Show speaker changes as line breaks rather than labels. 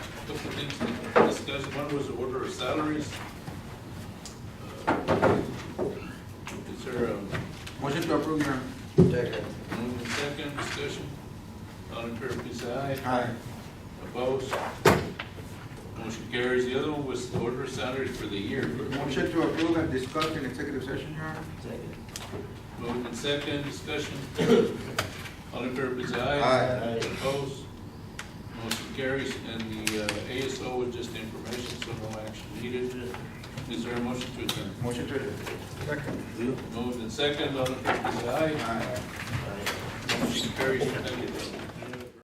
discussion, one was the order of salaries. Uh, Is there a
Motion to approve, Your Honor.
Second.
move and second discussion? All in favor, please say aye.
Aye.
Opposed? Motion carries. The other one was the order of salaries for the year.
Motion to approve and discuss in executive session, Your Honor.
Second.
Moved and second, discussion. All in favor, please say aye.
Aye.
Opposed? Motion carries, and the uh, ASO was just information, so no action needed. Is there a motion to adjourn?
Motion to adjourn.
Moved and second, all in favor, please say aye.
Aye.
Motion carries, thank you.